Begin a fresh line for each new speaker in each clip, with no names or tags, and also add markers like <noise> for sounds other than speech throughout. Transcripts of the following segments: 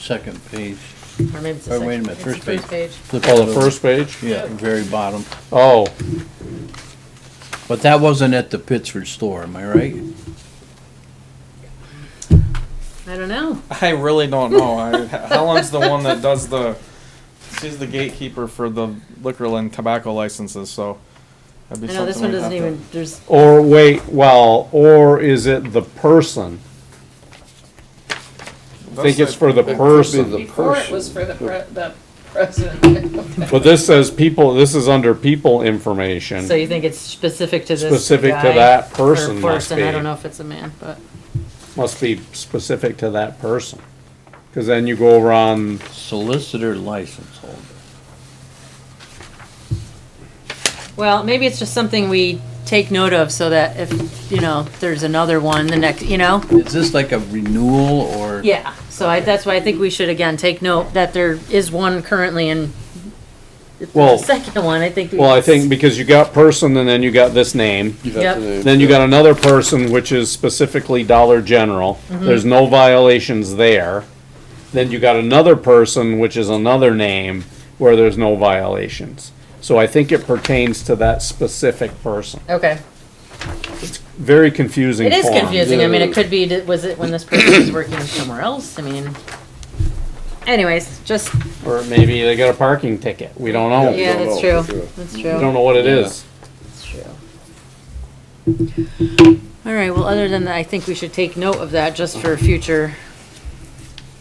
second page.
Or maybe it's the
Or
second.
wait a minute,
it's the
first page.
Oh, the first page?
Yeah, very bottom.
Oh,
But that wasn't at the Pittsford store, am I right?
I don't know.
I really don't know. I, Helen's the one that does the. She's the gatekeeper for the liquor and tobacco licenses, so. That'd be
I know this
something
one
we'd
doesn't
have to-
even, there's,
or wait, well, or is it the person? I think it's for the person,
Before it was for the pre- the president.
but this says people, this is under people information.
so you think it's specific to this
Specific to
guy
that
or
person must
person. I
be.
don't know if it's a man, but
Must be specific to that person. Cause then you go around,
Solicitor license holder.
well, maybe it's just something we take note of so that if you know there's another one the next, you know.
Is this like a renewal or?
Yeah, so I, that's why I think we should again take note that there is one currently and if
Well-
there's a second one, I think. we-
well, I think because you got person and then you got this name.
Yep,
Then you got another person, which is specifically Dollar General.
Mm-hmm.
There's no violations there. Then you got another person, which is another name, where there's no violations. So I think it pertains to that specific person.
okay.
Very confusing.
It is
form.
confusing. I mean, it could be, that- was it when this person was working somewhere else? I mean, anyways, just,
Or maybe they got a parking ticket. We don't know. We
yeah, that's
know,
true. That's
don't
true.
know what it is.
That's true. All right, well, other than that, I think we should take note of that just for future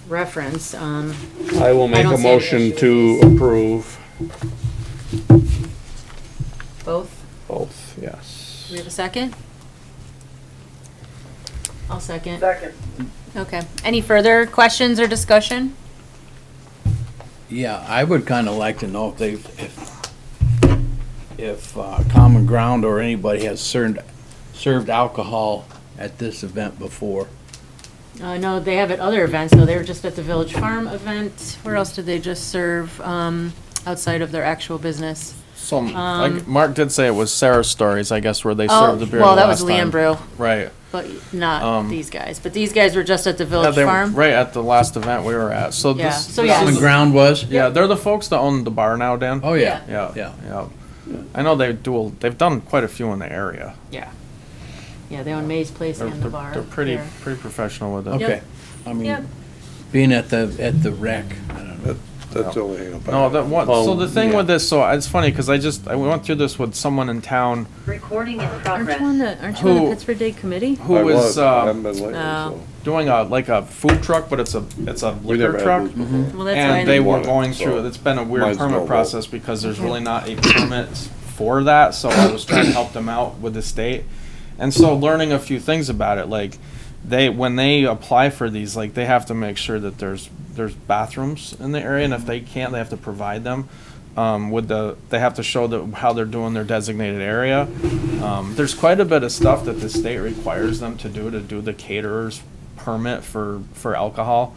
reference. Um,
I will make
don't
a
see any
motion
issue
to approve
both,
both,
do we
yes.
have a second? I'll second.
Second.
Okay. Any further questions or discussion?
Yeah, I would kind of like to know if they, if, if uh, Common Ground or anybody has served, served alcohol at this event before.
Uh, no, they have at other events, though. They were just at the Village Farm event. Where else did they just serve, um, outside of their actual business?
Some, like, Mark did say it was Sarah's Stories, I guess, where they
Um, Oh,
served the beer
well, that
last
was Leanne
time.
Brew,
Right.
but not these guys. But these guys were just at the
Yeah,
Village
they were
Farm.
right at the last event we were at. So
Yeah.
this,
So,
this
yeah.
is-
Common Ground was?
yeah, they're the folks that own the bar now, Dan.
Oh, yeah.
yeah,
Yeah.
yeah. I know they do. a- They've done quite a few in the area.
Yeah. Yeah, they own May's Place
They're,
and the
they're,
bar.
they're pretty
there.
pretty professional with it.
Okay.
Yep.
I
Yep.
mean, being at the, at the rec, I don't know.
That's the only hang up. I
No,
have.
that one.
Well,
so
Oh,
the thing
yeah.
with this, so it's funny because I just I went through this with someone in town
Recording in
Aren't you
progress.
on the, aren't you on the
Who-
Pittsburgh Day Committee?
who
I
was
was, um, I haven't
uh,
been lately,
Oh.
so.
doing a like a food truck, but it's a it's a
We
liquor
never had
truck, Mm-hmm.
booze before.
Well, that's why I
and they
didn't-
were
Wanted,
going through.
so
it. It's been a
might
weird
as well
permit
go.
process because there's really not a permit for that. So I was trying to help them out with the state, and so learning a few things about it, like they when they apply for these, like they have to make sure that there's there's bathrooms in the area, and if they can't, they have to provide them. um, with the they have to show the, how they're doing their designated area. Um, there's quite a bit of stuff that the state requires them to do to do the caterer's permit for for alcohol.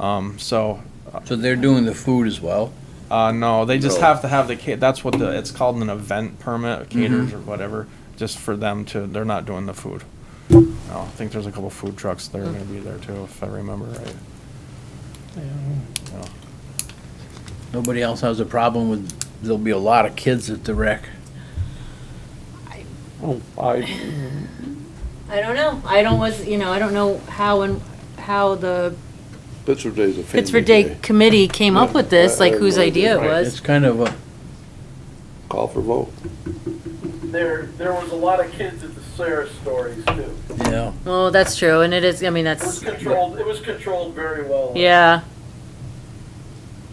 Um, so
So they're doing the food as well?
uh, no, they just
No.
have to have the ca- that's what the it's called an event permit, caterers or whatever, just for them to they're not doing the food. No, I think there's a couple food trucks that are going to be there too, if I remember right. Yeah.
Nobody else has a problem with, there'll be a lot of kids at the rec.
Oh, I,
I don't know. I don't was, you know, I don't know how and, how the
Pittsburgh Day's a family
Pittsburgh Day
day.
Committee came up with this, like
Uh,
whose idea it was.
It's kind of a,
Call for vote.
There, there was a lot of kids at the Sarah stories too.
you know,
Well, that's true, and it is, I mean,
It was
that's,
controlled, it was controlled very well.
yeah.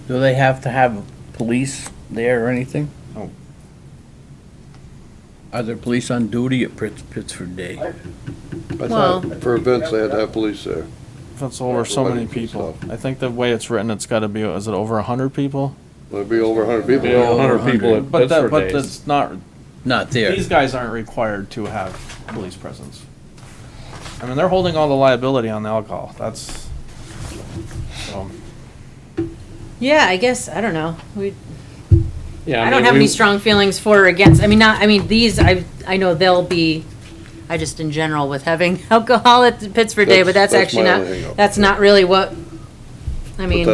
do they have to have police there or anything?
No.
Are there police on duty at Pitts- Pittsford Day?
I
Well-
thought for events, they had to have police there.
That's over so many
Everybody thinks
people. I think the way it's written, it's got to be, is it over 100 people?
There'd be over a hundred people.
be a hundred people at
But that,
Pittsburgh
but
Days.
that's not,
Not there.
these guys aren't required to have police presence. I mean, they're holding all the liability on the alcohol. That's, so,
Yeah, I guess, I don't know. We,
Yeah,
I
mean,
don't have any
we-
strong feelings for or against. I mean, not, I mean, these, I, I know they'll be, I just in general with having <laughs> alcohol at the Pittsburgh Day, but
That's-
that's
that's
actually
my
not,
only hang up.
that's not really what, I mean.